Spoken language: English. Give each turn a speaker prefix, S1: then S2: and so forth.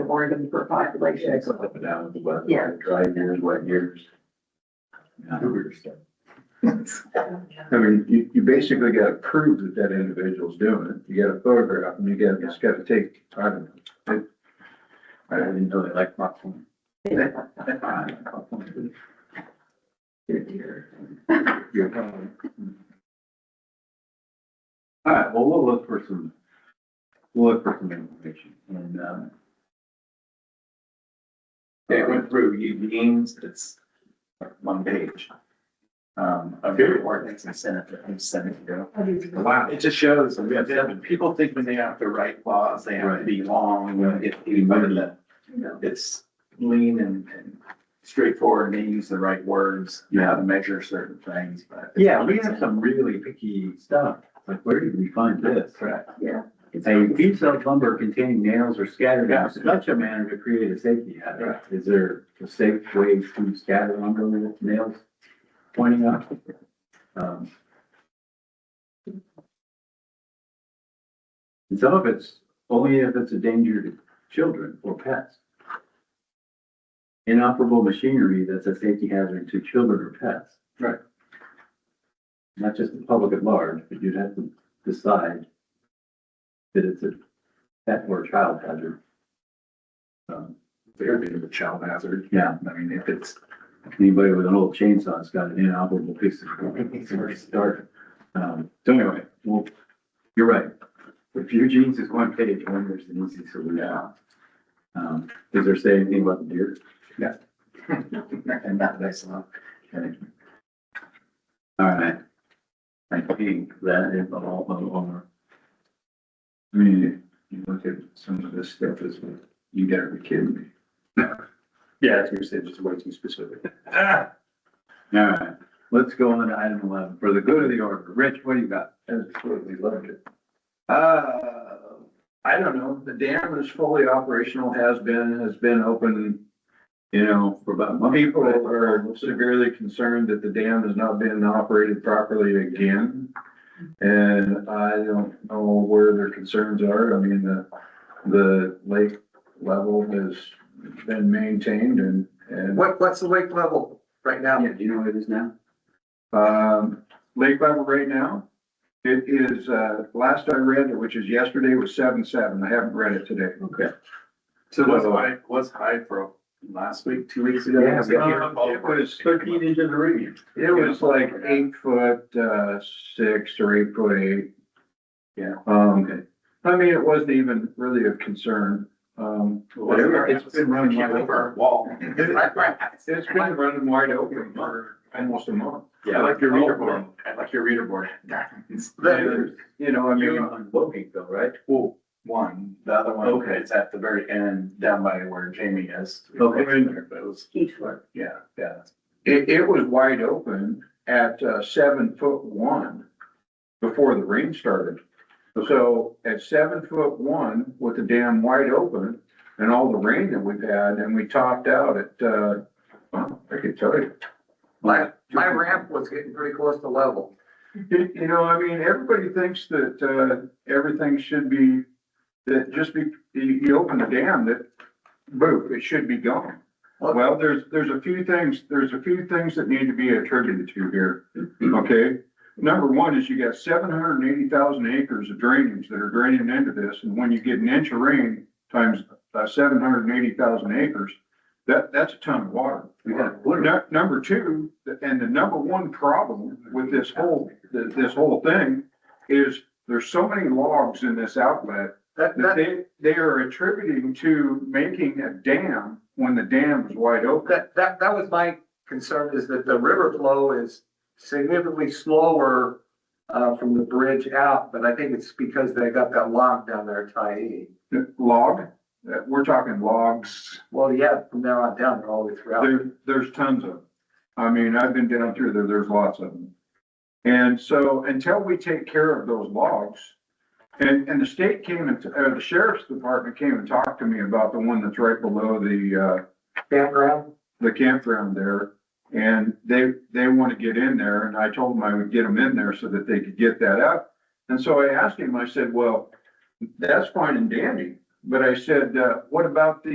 S1: Oregon per population.
S2: It's up and down, but
S1: Yeah.
S2: dry years, wet years. Yeah. I mean, you, you basically gotta prove that that individual's doing it. You gotta photograph them, you gotta, just gotta take, I don't know. It- I didn't know they liked my phone. All right, well, we'll look for some, we'll look for some information and, um,
S3: It went through Eugene's, it's like one page. Um, of your ordinance and senate, and senate, you know. Wow, it just shows, that we have seven, people think when they have to write laws, they have to be long, when it, you know, it's lean and, and straightforward, and they use the right words, you know, how to measure certain things, but.
S2: Yeah, we have some really picky stuff, like where did we find this?
S3: Correct.
S2: A piece of lumber containing nails or scattered in such a manner to create a safety hazard. Is there a safe way to scatter lumber with nails pointing up? Um, And some of it's only if it's a danger to children or pets. Inoperable machinery that's a safety hazard to children or pets.
S3: Right.
S2: Not just the public at large, but you'd have to decide that it's a pet or child hazard. Um,
S3: They're being a child hazard,
S2: yeah,
S3: I mean, if it's
S2: anybody with an old chawnsaw's got an inoperable piece of equipment to start. Um, so anyway, well, you're right. If Eugene's is one page, one there's an easy solution.
S3: Yeah.
S2: Um, does there say anything about the deer?
S3: And that, that's not.
S2: Okay. All right. I think that is all over.
S3: I mean, you look at some of this stuff, is you gotta be kidding me.
S2: Yeah,
S3: That's what you said, just way too specific.
S2: All right, let's go on to item eleven, for the good of the order. Rich, what do you got?
S3: Absolutely loved it. Uh, I don't know, the dam is fully operational, has been, has been open.
S2: You know, for about a month.
S3: People are severely concerned that the dam has not been operated properly again. And I don't know where their concerns are, I mean, the, the lake level has been maintained and, and.
S4: What, what's the lake level right now?
S2: Yeah, do you know what it is now?
S3: Um, lake level right now, it is, uh, last I read, it, which is yesterday, was seven, seven. I haven't read it today.
S2: Okay.
S3: So
S2: was
S3: high, was high for last week, two weeks
S2: ago?
S3: Yeah,
S2: Yeah.
S3: uh, it was
S2: Thirteen
S3: thirteen,
S2: inches of rain.
S3: it was like eight foot, uh, six or eight foot eight.
S2: Yeah.
S3: Um,
S2: Okay.
S3: I mean, it wasn't even really a concern, um. but it-
S2: It's been running wide open.
S4: wall.
S3: It's been running wide open for almost a month.
S2: Yeah, like
S4: your
S2: reader
S4: board.
S3: Oh, I like your reader board.
S4: The-
S3: You know, I mean.
S2: You're on Woking though, right?
S3: Well, one, the other one,
S2: Okay.
S3: it's at the very end, down by where Jamie is.
S2: Okay.
S3: But it was,
S1: Each one.
S3: yeah, yeah. It, it was wide open at uh, seven foot one before the rain started. So at seven foot one with the dam wide open and all the rain that we've had and we topped out at, uh, well, I could tell you.
S4: My, my ramp was getting pretty close to level.
S3: You, you know, I mean, everybody thinks that, uh, everything should be, that just be, you, you open the dam, that, boom, it should be gone. Well, there's, there's a few things, there's a few things that need to be attributed to here, okay? Number one is you got seven hundred and eighty thousand acres of drainage that are draining into this, and when you get an inch of rain times, uh, seven hundred and eighty thousand acres, that, that's a ton of water.
S2: We got a quarter.
S3: Nu- Number two, and the number one problem with this whole, th- this whole thing is there's so many logs in this outlet
S4: That,
S3: that
S4: that,
S3: they, they are attributing to making a dam when the dam is wide open.
S4: that, that, that was my concern is that the river flow is significantly slower uh, from the bridge out, but I think it's because they got that log down there at Tyee.
S3: The Log, uh, we're talking logs,
S4: Well, yeah, from there on down, they're all the way throughout.
S3: there, there's tons of them. I mean, I've been down through there, there's lots of them. And so until we take care of those logs, and, and the state came and, uh, the sheriff's department came and talked to me about the one that's right below the, uh,
S4: Campground,
S3: the campground there. And they, they want to get in there and I told them I would get them in there so that they could get that up. And so I asked him, I said, well, that's fine and dandy. But I said, uh, what about the